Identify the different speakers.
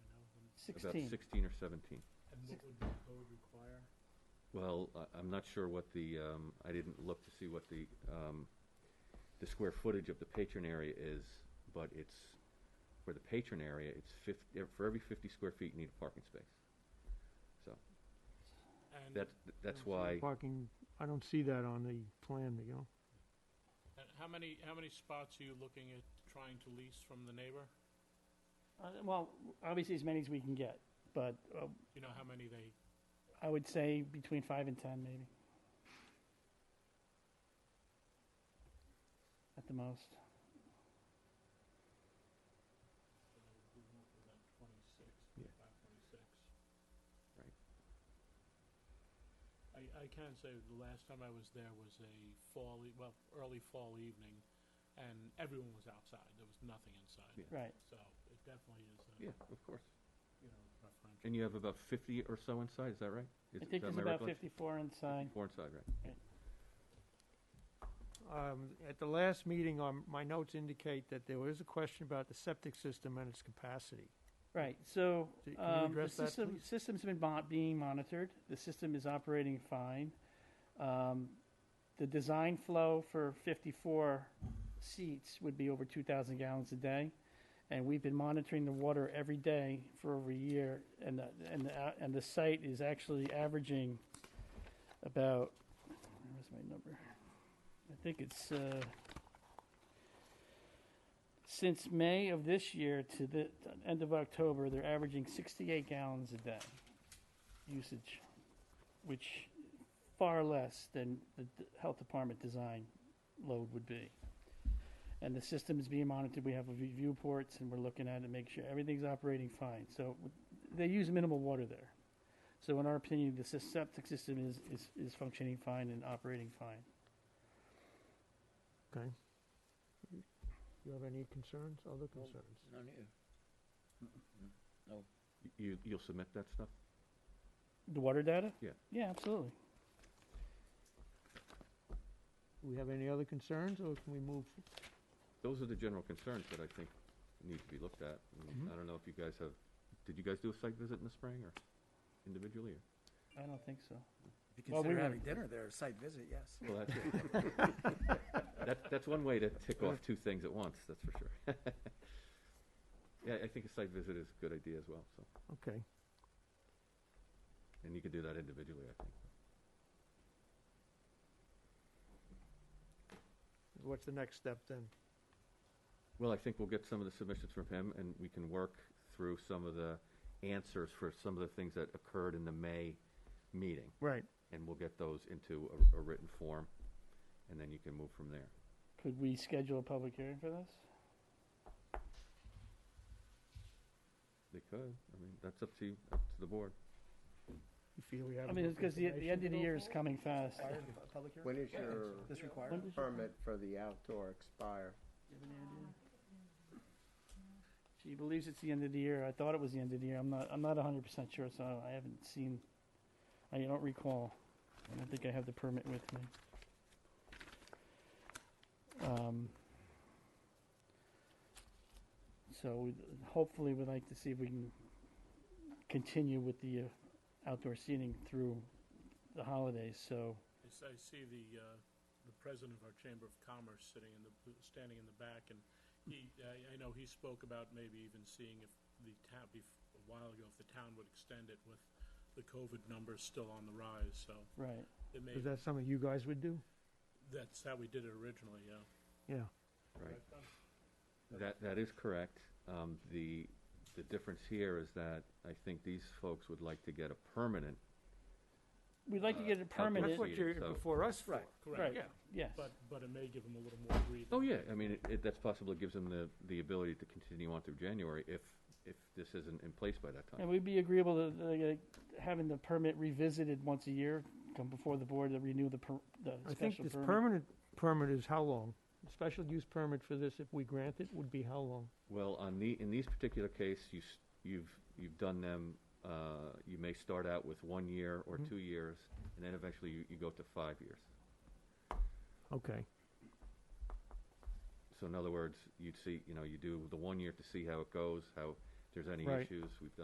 Speaker 1: about
Speaker 2: 16.
Speaker 1: sixteen or seventeen.
Speaker 3: And what would the code require?
Speaker 1: Well, I, I'm not sure what the, um, I didn't look to see what the, um, the square footage of the patron area is, but it's, for the patron area, it's fifty, for every fifty square feet, you need a parking space. So,
Speaker 3: And,
Speaker 1: that's, that's
Speaker 3: so
Speaker 1: why,
Speaker 2: Parking, I don't see that on the plan, you know?
Speaker 3: and how many, how many spots are you looking at trying to lease from the neighbor?
Speaker 4: Uh, Well, obviously as many as we can get, but uh,
Speaker 3: You know how many they,
Speaker 4: I would say between five and ten maybe. At the most.
Speaker 3: twenty-six,
Speaker 1: Yeah.
Speaker 3: five twenty-six?
Speaker 1: Right.
Speaker 3: I, I can say the last time I was there was a fall, e- well, early fall evening, and everyone was outside. There was nothing inside.
Speaker 1: Yeah.
Speaker 4: Right.
Speaker 3: So it definitely is, a,
Speaker 1: yeah, of course.
Speaker 3: you know, preferential.
Speaker 1: And you have about fifty or so inside, is that right?
Speaker 4: I
Speaker 1: Is it-
Speaker 4: think
Speaker 1: am
Speaker 4: there's about
Speaker 1: recollection?
Speaker 4: fifty-four inside.
Speaker 1: Four inside, right.
Speaker 2: Um, At the last meeting, um, my notes indicate that there was a question about the septic system and its capacity.
Speaker 4: Right, so,
Speaker 2: Can you
Speaker 4: um, the
Speaker 2: address that,
Speaker 4: system,
Speaker 2: please?
Speaker 4: system's been mon- being monitored, the system is operating fine. Um, the design flow for fifty-four seats would be over two thousand gallons a day. And we've been monitoring the water every day for over a year, and the, and the, a- and the site is actually averaging about, where's my number? I think it's, uh, since May of this year to the end of October, they're averaging 68 gallons a day usage, which far less than the d- health department design load would be. And the system is being monitored. We have a view- viewports, and we're looking at it, make sure everything's operating fine. So w- they use minimal water there. So in our opinion, the sys- septic system is, is, is functioning fine and operating fine.
Speaker 2: Okay. You have any concerns, other concerns?
Speaker 5: None here.
Speaker 1: Y- You, you'll submit that stuff?
Speaker 4: The water data?
Speaker 1: Yeah.
Speaker 4: Yeah, absolutely.
Speaker 2: Do we have any other concerns, or can we move?
Speaker 1: Those are the general concerns that I think need to be looked at. and
Speaker 2: Mhm.
Speaker 1: I don't know if you guys have, did you guys do a site visit in the spring or individually or?
Speaker 4: I don't think so.
Speaker 5: If you
Speaker 4: Well, we
Speaker 5: consider
Speaker 4: were-
Speaker 5: having dinner there, a site visit, yes.
Speaker 1: Well, that's it. That, that's one way to tick off two things at once, that's for sure. Yeah, I think a site visit is a good idea as well, so,
Speaker 2: Okay.
Speaker 1: and you could do that individually, I think.
Speaker 2: What's the next step then?
Speaker 1: Well, I think we'll get some of the submissions from him, and we can work through some of the answers for some of the things that occurred in the May meeting,
Speaker 2: Right.
Speaker 1: and we'll get those into a, a written form, and then you can move from there.
Speaker 4: Could we schedule a public hearing for this?
Speaker 1: They could, I mean, that's up to you, up to the board.
Speaker 2: You feel we have?
Speaker 4: I mean,
Speaker 2: enough
Speaker 4: because the, e-, the end of the
Speaker 2: information?
Speaker 4: year is coming fast.
Speaker 5: Public hearing?
Speaker 6: When is your
Speaker 5: This required?
Speaker 4: When does your-
Speaker 6: permit for the outdoor expire?
Speaker 4: you have any idea? She believes it's the end of the year. I thought it was the end of the year. I'm not, I'm not hundred percent sure, so I haven't seen, I don't recall. I don't think I have the permit with me. Um, so we'd- hopefully we'd like to see if we can continue with the uh, outdoor seating through the holidays, so.
Speaker 3: I s- I see the, uh, the president of our Chamber of Commerce sitting in the, standing in the back, and he, I, I know he spoke about maybe even seeing if the town, bef- a while ago, if the town would extend it with the COVID numbers still on the rise, so
Speaker 4: Right.
Speaker 3: it may,
Speaker 2: Is that something you guys would do?
Speaker 3: that's how we did it originally, yeah.
Speaker 2: Yeah.
Speaker 1: Right. That, that is correct. Um, the, the difference here is that I think these folks would like to get a permanent,
Speaker 4: We'd like to
Speaker 1: Uh,
Speaker 4: get it
Speaker 1: outdoor
Speaker 4: permanent,
Speaker 2: That's what you're
Speaker 1: So-
Speaker 2: before us for.
Speaker 4: Right.
Speaker 3: Correct, yeah,
Speaker 4: yes.
Speaker 3: but, but it may give them a little more breathing.
Speaker 1: oh yeah, I mean, it, it, that's possible, it gives them the, the ability to continue on through January if, if this isn't in place by that
Speaker 4: And
Speaker 1: time.
Speaker 4: we'd be agreeable to uh, having the permit revisited once a year, come before the board to renew the per, the
Speaker 2: I think
Speaker 4: special
Speaker 2: this
Speaker 4: permit.
Speaker 2: permanent permit is how long? The Special use permit for this, if we grant it, would be how long?
Speaker 1: Well, on the, in these particular case, you, s- you've, you've done them, uh, you may start out with one year or
Speaker 2: Mhm.
Speaker 1: two years, and then eventually you, you go to five years.
Speaker 2: Okay.
Speaker 1: So in other words, you'd see, you know, you do the one year to see how it goes, how, if there's any
Speaker 2: Right.
Speaker 1: issues, we've done